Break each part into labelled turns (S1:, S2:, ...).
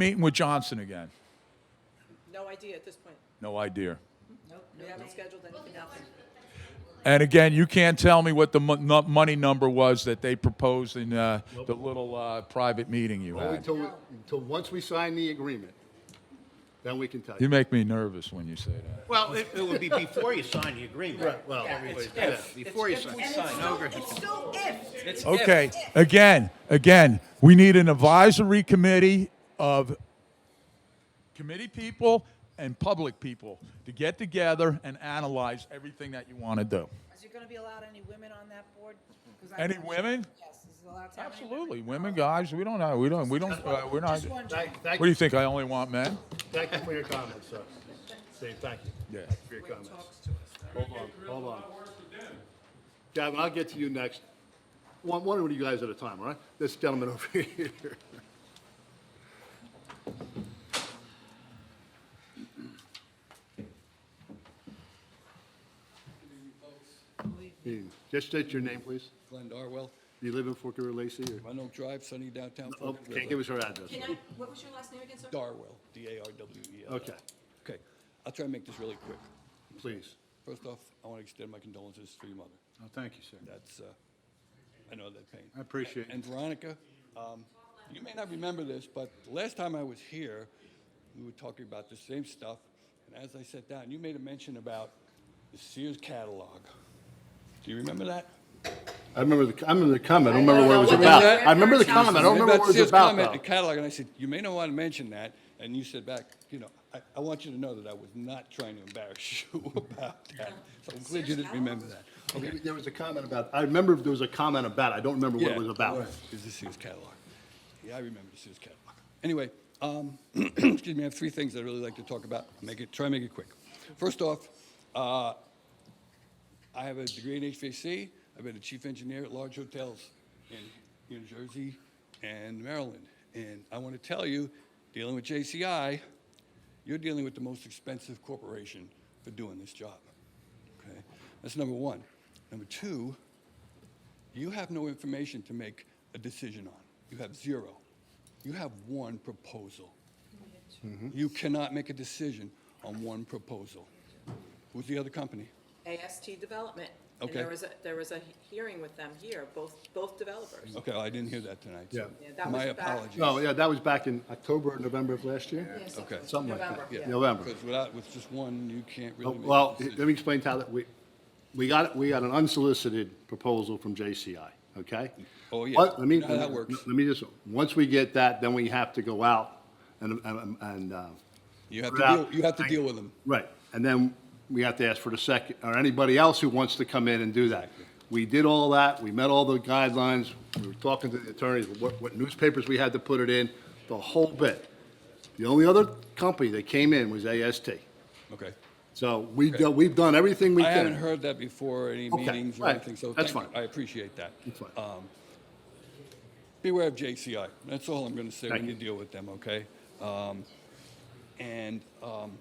S1: Meeting with Johnson again.
S2: No idea at this point.
S1: No idea.
S2: Nope, we haven't scheduled anything else.
S1: And again, you can't tell me what the mon- nu- money number was that they proposed in uh, the little uh, private meeting you
S3: Only
S1: had.
S3: until, until once we sign the agreement, then we can tell
S1: You
S3: you.
S1: make me nervous when you say that.
S4: Well, it, it would be before you sign the agreement.
S3: Right, well, everybody's,
S4: It's
S3: yeah.
S4: if, before you sign.
S5: It's still if.
S4: It's
S1: Okay, again, again, we need an advisory committee of committee people and public people to get together and analyze everything that you want to do.
S2: Is there gonna be allowed any women on that board? 'Cause I'm
S1: Any
S2: not sure.
S1: women?
S2: Yes, is it allowed to have any women?
S1: Absolutely, women, guys, we don't know, we don't, we don't, uh, we're not.
S2: Just
S1: What
S2: wondering.
S3: Thank, thank,
S1: do you think? I only want men?
S3: thank you for your comments, sir. Dave, thank you.
S1: Yeah.
S3: Thank you For your comments. Hold on, hold on. Gavin, I'll get to you next. One, one of you guys at a time, all right? This gentleman over here. Hey, Just state your name, please.
S6: Glenn Darwell,
S3: Do you live in Fort River Lacey or?
S6: Run Oak Drive, sunny downtown
S3: Oh,
S6: Fort
S3: can't
S6: River.
S3: give us her address.
S5: Can I, what was your last name again, sir?
S6: Darwell, D-A-R-W-E-L.
S3: Okay,
S6: E Okay, I'll try and make this really quick.
S3: please.
S6: First off, I want to extend my condolences to your mother.
S3: Oh, thank you, sir.
S6: That's, uh, I know that pain.
S3: I appreciate it.
S6: And Veronica, um, you may not remember this, but the last time I was here, we were talking about the same stuff. And as I sat down, you made a mention about the Sears catalog. Do you remember that?
S3: I remember the, I remember the comment, I don't remember what it was about. I remember the comment, I don't remember what it was
S6: Sears
S3: about,
S6: comment, The
S3: though.
S6: catalog, and I said, you may not want to mention that, and you said back, you know, I, I want you to know that I was not trying to embarrass you about that. So I'm glad you didn't remember that.
S3: Okay, Oh, There was a comment about, I remember there was a comment about, it. I don't remember what it was about.
S6: Is the Sears catalog. Yeah, I remember the Sears catalog. Anyway, um, excuse me, I have three things I'd really like to talk about. Make it, try and make it quick. First off, uh, I have a degree in HVAC. I've been a chief engineer at large hotels in New Jersey and Maryland. And I want to tell you, dealing with JCI, you're dealing with the most expensive corporation for doing this job. Okay, that's number one. Number two, you have no information to make a decision on. You have zero. You have one proposal.
S2: Mm-hmm.
S6: You cannot make a decision on one proposal. Who's the other company?
S2: AST Development. And
S6: Okay.
S2: there was a, there was a he- hearing with them here, both, both developers.
S6: Okay, I didn't hear that tonight. so
S2: Yeah, that
S6: My
S2: was back-
S6: apologies.
S3: No, Oh, yeah, that was back in October or November of last year?
S6: Okay.
S3: Something like that,
S2: November, yeah.
S3: November.
S6: Because without, with just one, you can't
S3: Oh,
S6: really make a
S3: Well, let
S6: decision.
S3: me explain how that, we, we got, we got an unsolicited proposal from JCI, okay?
S6: Oh, yeah.
S3: But Let me,
S6: You know how that works.
S3: let me just, once we get that, then we have to go out and, and- and, uh.
S6: You have to
S3: put out-
S6: deal, you have to deal with them.
S3: Right, and then we have to ask for the second, or anybody else who wants to come in and do that. We did all that, we met all the guidelines, we were talking to the attorneys, what, what newspapers we had to put it in, the whole bit. The only other company that came in was AST.
S6: Okay.
S3: So we, do- we've done everything we
S6: I
S3: can.
S6: haven't heard that before, any
S3: Okay,
S6: meetings or
S3: right,
S6: anything, so
S3: that's
S6: thank you.
S3: fine.
S6: I appreciate that.
S3: That's fine.
S6: Um, Beware of JCI, that's all I'm gonna say
S3: Thank
S6: when you
S3: you.
S6: deal with them, okay? Um, And um,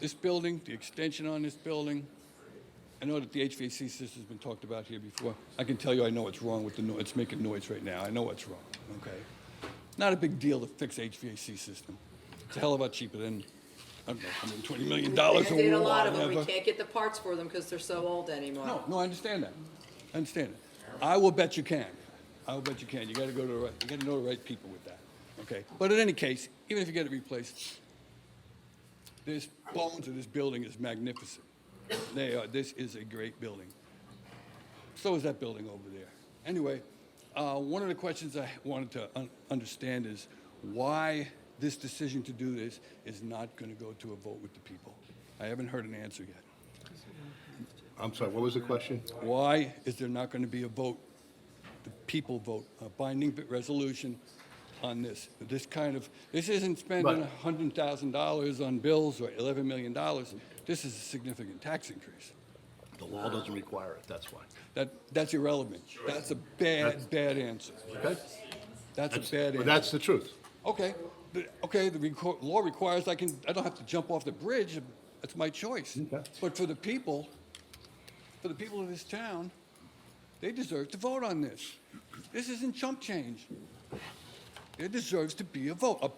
S6: this building, the extension on this building, I know that the HVAC system's been talked about here before. I can tell you I know what's wrong with the, no- it's making noise right now, I know what's wrong, okay? Not a big deal to fix HVAC system. It's a hell of a lot cheaper than, I don't know, $120 million or
S2: And did a lot of them, we
S6: whatever.
S2: can't get the parts for them because they're so old anymore.
S6: No, no, I understand that. I understand that. I will bet you can. I will bet you can. You gotta go to the right, you gotta know the right people with that, okay? But in any case, even if you get it replaced, this bones of this building is magnificent. They are, this is a great building. So is that building over there. Anyway, uh, one of the questions I wanted to un- understand is why this decision to do this is not gonna go to a vote with the people. I haven't heard an answer yet.
S3: I'm sorry, what was the question?
S6: Why is there not going to be a vote, the people vote, a binding bit- resolution on this? This kind of, this isn't spending
S3: Right.
S6: $100,000 on bills or $11 million. This is a significant tax increase.
S3: The law doesn't require it, that's why.
S6: That, that's irrelevant. That's a bad, bad answer.
S3: Okay?
S6: That's a bad
S3: But
S6: answer.
S3: that's the truth.
S6: Okay, the- okay, the reco- law requires I can, I don't have to jump off the bridge. That's my choice.
S3: Okay.
S6: But for the people, for the people of this town, they deserve to vote on this. This isn't chump change. There deserves to be a vote, a